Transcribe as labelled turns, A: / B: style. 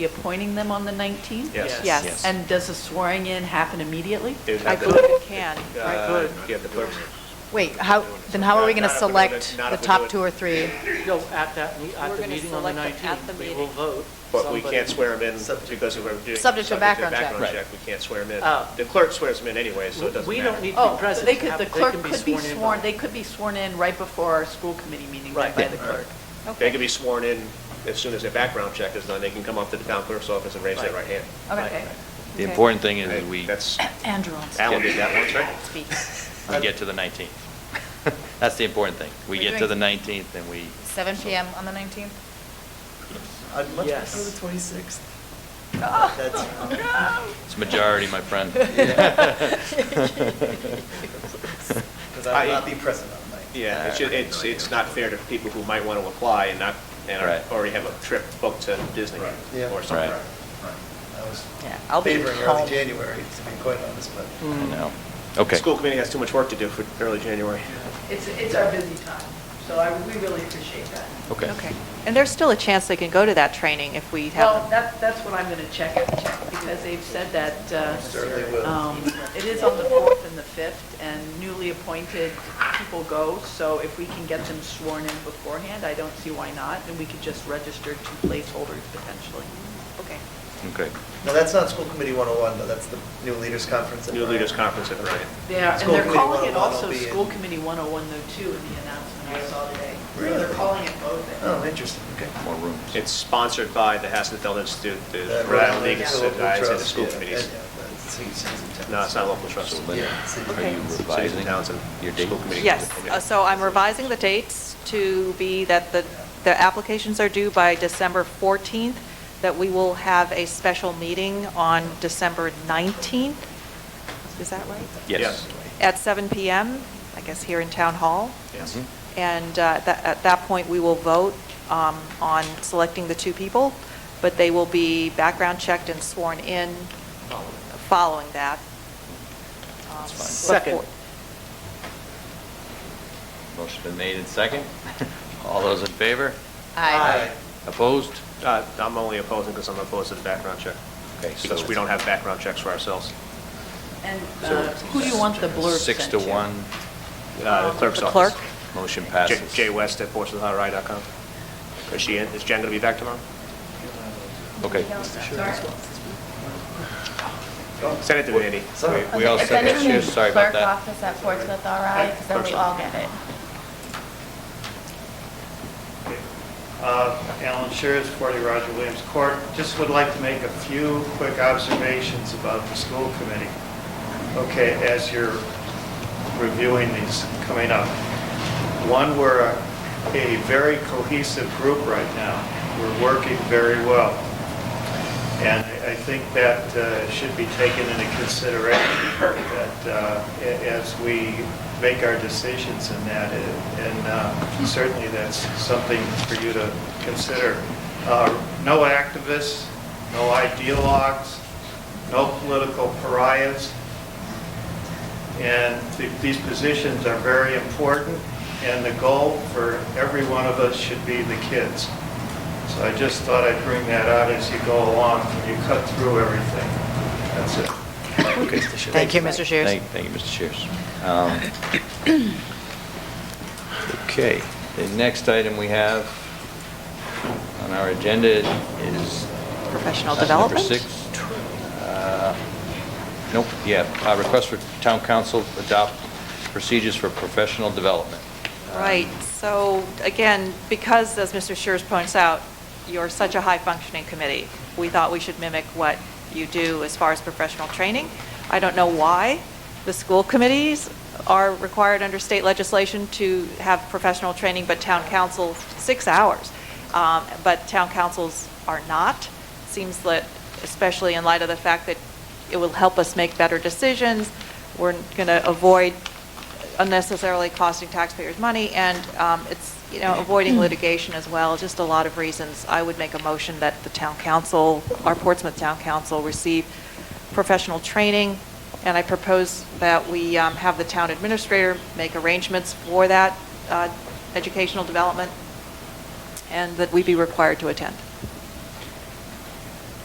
A: be appointing them on the 19th?
B: Yes.
C: Yes.
D: Yes.
A: And does the swearing-in happen immediately?
B: It would
C: I
B: have the-
C: believe it can.
B: Uh, You have the clerk's,
D: Wait, how, then how are we going to
B: Not if we do it-
D: select
B: not
D: the
B: if we do
D: top
B: it-
D: two or three?
E: No, at that, me-
C: We're
E: at the
C: gonna
E: meeting on the
C: select them at
E: 19th,
C: the
E: we will
C: meeting.
E: vote.
B: but we
E: somebody.
B: can't swear him in because of what we're doing.
D: Subject to background check.
B: background check, we can't swear him in.
E: Oh.
B: The clerk swears him in anyway, so it doesn't
E: We
B: matter.
E: don't need to
A: Oh,
E: be
A: so
E: present.
A: they
E: to
A: could,
E: have-
A: the
E: they
A: clerk
E: can
A: could be
E: in
A: sworn,
E: by-
A: they could be sworn in right before our school committee meeting then
E: Right.
A: by the clerk.
B: They
C: Okay.
B: can be sworn in as soon as their background check is done, they can come up to the town clerk's office and raise their right
E: Right.
B: hand.
A: Okay.
D: Okay.
F: The important thing is
B: Right?
F: that we,
B: That's,
A: Andrew wants to
B: Alan did that once, right?
A: speak.
F: we get to the 19th. That's the important thing. We
D: We're
F: get to the
D: doing-
F: 19th and we,
D: 7 PM on the 19th?
G: I'd much
E: Yes.
G: prefer the twenty-sixth.
A: Oh,
F: it's majority, my friend.
G: Because I will
B: I-
G: not be present on the night.
B: Yeah, it's, ju- it's, it's not fair to people who might want to apply and not, and are-
F: Right.
B: already have a trip booked to Disney
G: Yeah.
B: or something.
F: Right.
G: I was
C: Yeah, I'll be
G: favoring
C: home.
G: early January, to be quite honest, but.
F: I know.
B: The
F: Okay.
B: School committee has too much work to do for early January.
H: It's, it's our busy time, so I, we really appreciate that.
A: Okay.
C: And there's still a chance they can go to that training if we
A: Well,
C: have,
A: that, that's what I'm going to check, because they've said that,
G: Certainly will.
A: uh, um, it is on the 4th and the 5th, and newly appointed people go, so if we can get them sworn in beforehand, I don't see why not, and we could just register two placeholders potentially. Okay.
F: Okay.
G: No, that's not School Committee 101, though, that's the New Leaders Conference. at
B: New leaders
G: Bryant.
B: conference at Ryan.
A: They are, and
G: School
A: they're
G: Committee
A: calling it
G: 101 will
A: also
G: be in-
A: School Committee 101 though, too, in the announcement I saw today.
G: Really?
A: They're calling it both.
G: Oh, interesting, okay.
F: More rooms.
B: It's sponsored by the Hasselfeld Institute, the
G: That
B: Rhode
G: Rhode
B: Island League of
G: Island
B: Guys, and the
G: Trust,
B: school
G: Uh, yeah,
B: committees.
G: and, yeah, the cities- cities and towns.
B: No, it's not local trust.
F: So, Linda,
G: Yeah, see.
F: are you revising
B: Townsend,
F: your date?
B: school committee.
C: yes.
B: Yeah.
C: Uh, So I'm revising the dates to be that the, the applications are due by December 14th, that we will have a special meeting on December 19th. Is that right?
F: Yes.
C: At 7 PM, I guess here in Town Hall.
B: Yes.
F: Mhm.
C: And uh, at that- at that point, we will vote um, on selecting the two people, but they will be background checked and sworn in following that. um,
F: That's fine.
C: before-
E: Second.
F: Motion been made and second. All those in favor?
D: Aye.
F: Opposed?
B: Uh, I'm only opposing because I'm opposed to the background check.
F: Okay, so
B: Because we
F: it's-
B: don't have background checks for ourselves.
A: And
F: So
A: uh,
F: it's
A: who do you want the blurb
F: Six
A: sent
F: to one,
B: Uh, The clerk's
C: The
B: office.
C: clerk?
F: motion
B: J-
F: passes.
B: Jay West at portsmouthri.com. Is she in, is Jen going to be back tomorrow?
F: Okay.
B: Send it to Andy.
G: Oh. Sorry.
F: We all said that, too. sorry about that.
I: Clerk office at Portsmouth, all right, because then we all get it.
J: Uh, Alan Shears, 40 Roger Williams Court. Just would like to make a few quick observations about the school committee. Okay, as you're reviewing these coming up. One, we're a a very cohesive group right now. We're working very well. And I I think that uh, should be taken into consideration, that uh, a- as we make our decisions in that, uh, and uh, certainly that's something for you to consider. Uh, No activists, no ideologues, no political pariahs. And th- these positions are very important, and the goal for every one of us should be the kids. So I just thought I'd bring that out as you go along, you cut through everything. That's it.
D: Thank you, Mr. Shears.
F: Thank, thank you, Mr. Shears. Um, Okay, the next item we have on our agenda is...
C: Professional
F: that's
C: development?
F: Number six. Uh, Nope, yeah, uh, request for town council adopt procedures for professional development.
C: Right,
F: Um,
C: so again, because, as Mr. Shears points out, you're such a high-functioning committee, we thought we should mimic what you do as far as professional training. I don't know why the school committees are required under state legislation to have professional training, but town council, six hours, Um, but town councils are not. Seems that, especially in light of the fact that it will help us make better decisions, we're going to avoid unnecessarily costing taxpayers money, and um, it's, you know, avoiding litigation as well, just a lot of reasons. I would make a motion that the town council, our Portsmouth Town Council, receive professional training, and I propose that we um, have the town administrator make arrangements for that uh, educational development, and that we be required to attend.